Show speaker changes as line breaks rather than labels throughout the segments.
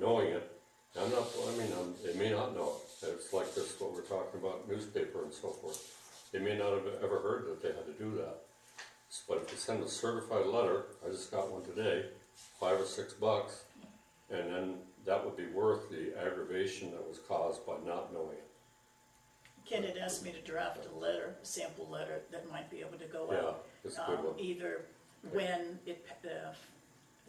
knowing it. I'm not, I mean, um, they may not know it, it's like this, what we're talking about, newspaper and so forth. They may not have ever heard that they had to do that. S- But if you send a certified letter, I just got one today, five or six bucks, and then that would be worth the aggravation that was caused by not knowing it.
Ken had asked me to draft a letter, a sample letter that might be able to go
Yeah,
out.
that's a good
um,
one.
Either when it, pa- the,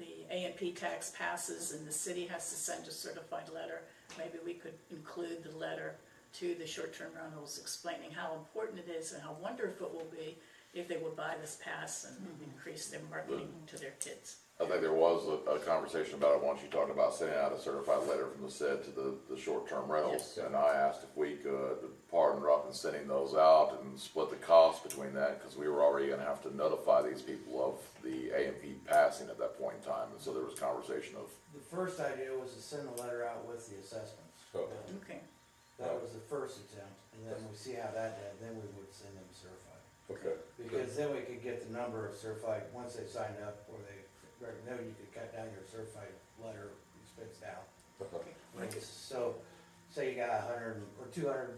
the A and P tax passes and the city has to send a certified letter, maybe we could include the letter to the short-term rentals explaining how important it is and how wonderful it will be if they would buy this pass and increase their marketing to their kids.
I think there was a, a conversation about it once, you talked about sending out a certified letter from the said to the, the short-term rentals.
Yes.
And I asked if we could partner up in sending those out and split the cost between that, cause we were already gonna have to notify these people of the A and P passing at that point in time, and so there was conversation of,
The first idea was to send the letter out with the assessments.
So-
Um,
Okay,
That was the first attempt, and then we see how that did, then we would send them certified.
Okay.
Because then we could get the number of certified, once they signed up, or they, then you could cut down your certified letter expense down.
Uh-huh.
Like, So, say you got a hundred or two hundred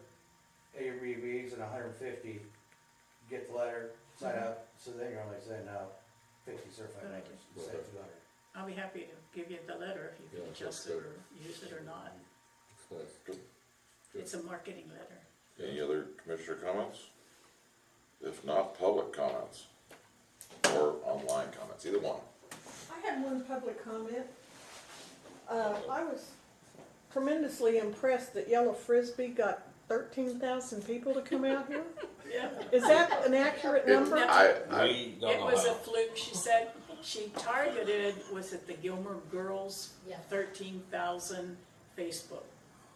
ARBVs and a hundred and fifty, get the letter, sign up, so then you're only sending out fifty certified
Good
letters
idea.
instead of
Okay.
two hundred.
I'll be happy to give you the letter if you
Yeah,
can
that's
adjust it
good.
or use it or not.
It's nice. Good.
It's a marketing letter.
Any other commissioner comments? If not, public comments or online comments, either one.
I had one public comment. Uh, I was tremendously impressed that Yellow Frisbee got thirteen thousand people to come out here.
Yeah.
Is that an accurate
It-
number?
I, I,
We
It
don't know
was a
how.
fluke, she said. She targeted, was it the Gilmer Girls?
Yeah.
Thirteen thousand Facebook,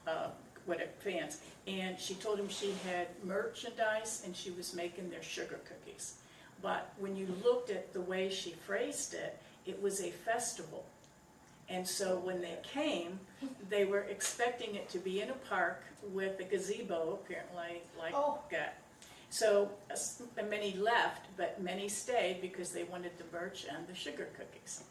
uh, what it- fans. And she told him she had merchandise and she was making their sugar cookies. But when you looked at the way she phrased it, it was a festival. And so when they came, they were expecting it to be in a park with a gazebo, apparently, like
Oh.
that. So as- many left, but many stayed because they wanted the birch and the sugar cookies.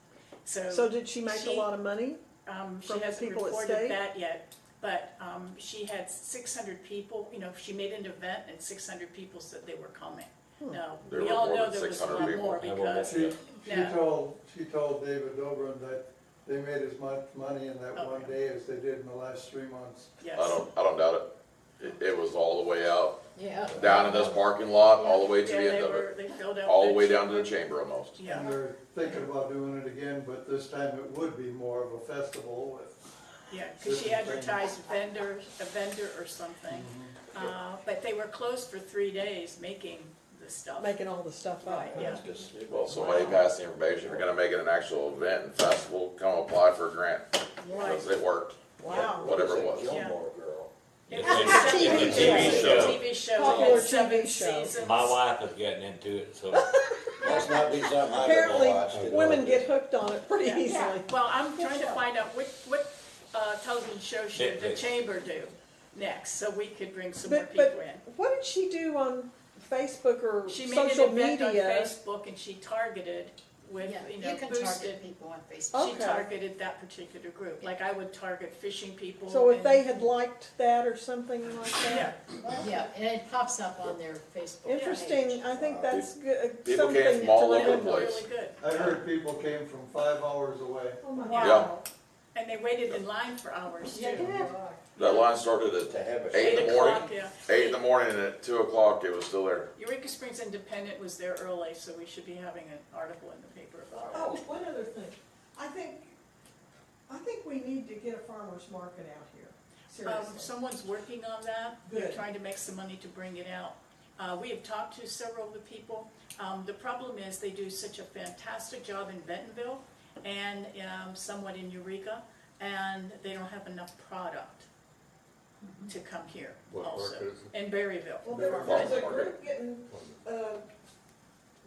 So,
So did she make
She-
a lot of money?
um, she
from the
hasn't
people that
reported
stayed?
that yet, but um, she had 600 people. You know, she made an event and 600 people said they were coming.
Hmm.
Now
There
we
were
all
more
know
than
there was a
600
lot
people.
more
I won't
because
miss it.
She
Yeah.
told, she told David Dobrin that they made as much money in that one
Okay.
day as they did in the last three months.
yes,
I don't, I don't doubt it. it. It was all the way out,
Yeah.
down in this parking lot, all the way to
yeah,
the end
they
of
were
it,
they filled out
all the
their
way down to the
chamber.
chamber almost.
Yeah.
And they're thinking about doing it again, but this time it would be more of a festival with
Yeah, because she
Certain things.
advertised vendor, a vendor or something.
Mm-hmm.
Uh, But they were closed for three days making the stuff.
Making all the stuff up?
Right, yeah.
Well, so how you pass the information, if you're gonna make it an actual event and festival, come apply for a grant,
Right.
because it worked,
Wow.
whatever it was.
Gilmore Girl.
It's
It's a-
a
it's a TV show.
TV show,
Popular
had seven
TV show.
seasons.
My wife is getting into it, so
Must not be something I've ever
Apparently,
watched.
women get hooked on it pretty
Yeah.
easily.
Well, I'm trying to find out what, what uh, television show should the
Netflix.
chamber do next, so we could bring some more
But,
people
but
in.
what did she do on Facebook or
She made
social
an event on
media?
Facebook and she targeted with,
Yeah,
you
you
know,
can
boosted.
target people on Facebook.
She
Okay.
targeted that particular group, like I would target fishing people.
So if
and-
they had liked that or something like
Yeah,
that?
Oh,
Yeah, and it pops up on their Facebook page.
Interesting, I think that's
uh,
good,
People
something
came
to
from all
yeah,
over the
remember.
place.
really good.
I heard people came from five hours away.
Oh my
Yeah.
God.
And they waited in line for hours too.
That line started at
To have a
eight in
Eight
the morning,
o'clock, yeah.
eight in the morning, and at two o'clock, it was still there.
Eureka Springs Independent was there early, so we should be having an article in the paper about it. Um,
Oh, one other thing. I think, I think we need to get a farmer's market out here,
Um,
seriously.
someone's working on that, they're
Good.
trying to make some money to bring it out. Uh, we have talked to several of the people, um, the problem is they do such a fantastic job in Bentonville and, um, somewhat in Eureka, and they don't have enough product
Mm-hmm.
to come here
What market
also,
is
in Berryville.
Well, there-
Farmer's
there's a
market.
group getting,
Oh,
uh,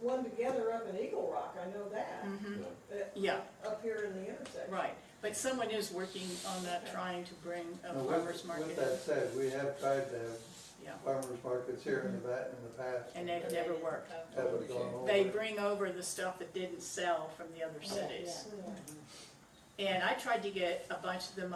one together up in Eagle Rock, I know that,
Mm-hmm.
Mhm,
Yeah.
that-
yeah,
up here in the intersection.
right, but someone is working on that, trying to bring a
Now, with-
farmer's
With
market,
that said, we have tried to have
yeah,
farmers markets here in the, ba- in the past.
and they've never worked.
Oh,
Haven't gone over.
They bring over the stuff that didn't sell from the other cities. And I tried to get a bunch of them